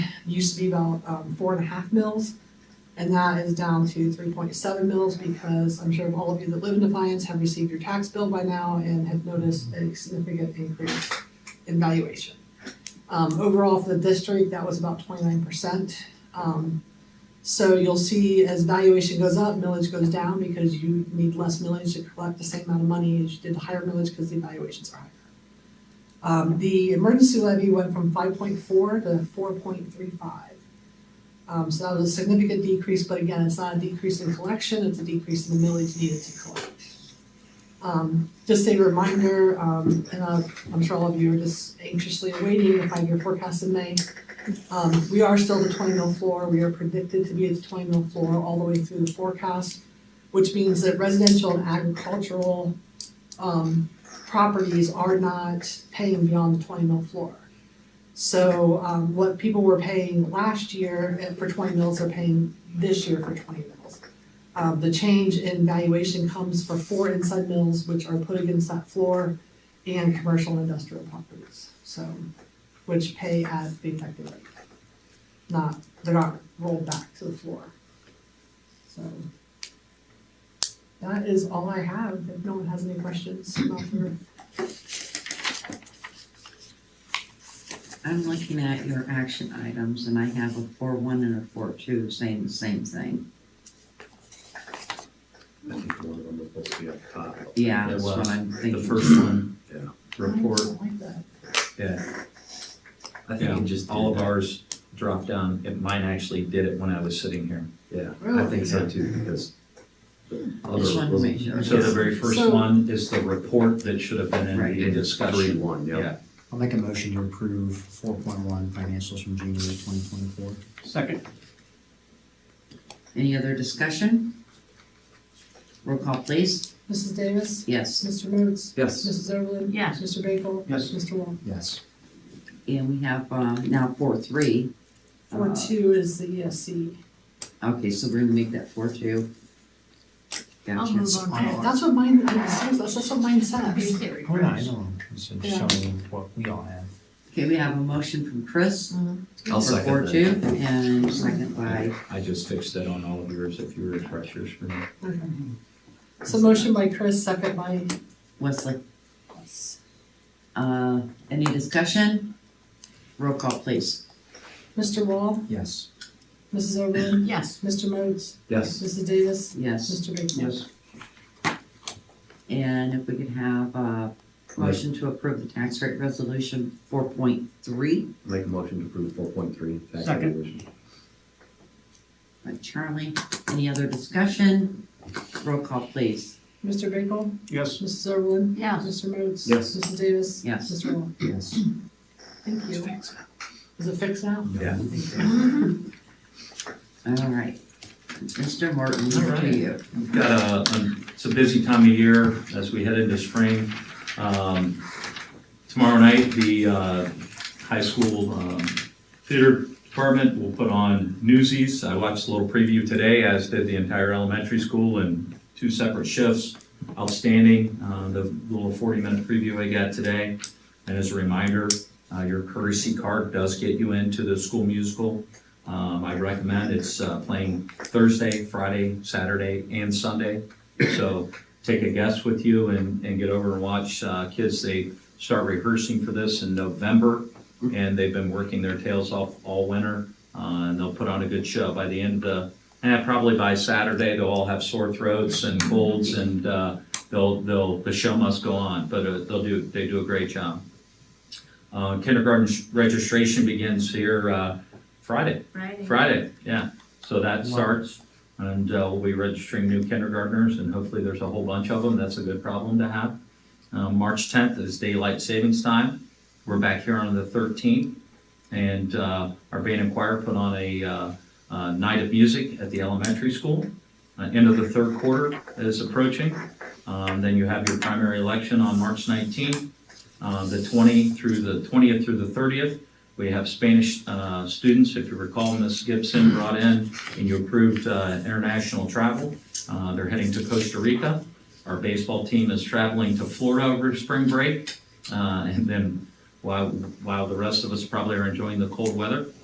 used to be about, um, four and a half mils. And that is down to three point seven mils because I'm sure all of you that live in Defiance have received your tax bill by now and have noticed a significant increase in valuation. Um, overall for the district, that was about twenty-nine percent. Um, so you'll see as valuation goes up, millage goes down because you need less millage to collect the same amount of money as you did the higher millage because the valuations are higher. Um, the emergency levy went from five point four to four point three five. Um, so that was a significant decrease, but again, it's not a decrease in collection, it's a decrease in the millage needed to collect. Um, just a reminder, um, and uh, I'm sure all of you are just anxiously awaiting the five-year forecast in May. Um, we are still the twenty mil floor, we are predicted to be at the twenty mil floor all the way through the forecast, which means that residential and agricultural, um, properties are not paying beyond the twenty mil floor. So, um, what people were paying last year eh, for twenty mils are paying this year for twenty mils. Um, the change in valuation comes for four inside mills, which are put against that floor, and commercial and industrial properties, so, which pay at the effective rate. Not, they're not rolled back to the floor. So. That is all I have, if no one has any questions about the I'm looking at your action items and I have a four one and a four two saying the same thing. I think one of them was supposed to be up top. Yeah, It that's what was. I'm The thinking. first one, yeah, I report, don't like that. yeah, I think Yeah, it just, did all of that. ours dropped down, and mine actually did it when I was sitting here. yeah, I Really? think so too, because. Just wanted to make sure. So the very first So- one is the report that should have been in Right. the Three, discussion. one, yeah. I'll make a motion to approve four point one financials from January twenty twenty-four. Second. Any other discussion? Roll call please. Mrs. Davis? Yes. Mr. Moots? Yes, Mrs. Everlin? Yes. Mr. Bagel? Yes. Mr. Wong? Yes. And we have, um, now four three. Uh, Four two is the E ESC. Okay, so we're gonna make that four two. I'll Gotcha. move on. on our- to- That's what mine, I'm serious, that's that's what mine says. Very Oh, yeah, I fresh. know. It's just Yeah. showing what we all have. Okay, we have a motion from Chris I'll for second four that. two and second by, I just fixed it on all of yours, if you were refreshers for me. Okay. So motion by Chris, second by Wesley. Uh, any discussion? Roll call please. Mr. Wall, Yes. Mrs. Everlin, Yes, Mr. Modes, yes, Mrs. Davis, Yes. Mr. Bigler. Yes. And if we could have a motion to approve the tax rate resolution four point three make a motion to approve four point three, tax Second. evaluation. by Charlie. Any other discussion? Roll call, please. Mr. Bigler, Yes. Mrs. Everlin, yes, Mr. Modes. Yes. Mrs. Davis. Yes. Mr. Wall. Yes. Thank you. Is it fixed now? Yeah. All right. Mr. Morton, over to you. We've got a, a- it's a busy time of year as we head into spring. Um, Tomorrow night, the uh, high school um, theater department will put on Newsies. I watched a little preview today, as did the entire elementary school in two separate shifts. Outstanding, uh, the little 40-minute preview I got today. And as a reminder, uh, your courtesy card does get you into the school musical. Um, I recommend, it's uh, playing Thursday, Friday, Saturday, and Sunday. So take a guess with you and, and get over and watch uh, kids. They start rehearsing for this in November, and they've been working their tails off all winter. Uh, and they'll put on a good show by the end of the, eh, probably by Saturday, they'll all have sore throats and colds, and uh, they'll, they'll, the show must go on. But uh, they'll do, they do a great job. Uh, kindergarten sh- registration begins here uh, Friday. Friday. Friday, yeah. So that Wow. starts, and uh, we'll be registering new kindergartners, and hopefully there's a whole bunch of them. That's a good problem to have. Um, March 10th is daylight savings time. We're back here on the 13th, and uh, our band and choir put on a uh, uh, night of music at the elementary school. Uh, End of the third quarter is approaching. Um, Then you have your primary election on March 19th. Uh, The 20 through the 20th through the 30th, we have Spanish uh, students, if you recall, Ms. Gibson brought in and you approved uh, international travel. Uh, They're heading to Costa Rica. Our baseball team is traveling to Florida over spring break. Uh, And then while, while the rest of us probably are enjoying the cold weather,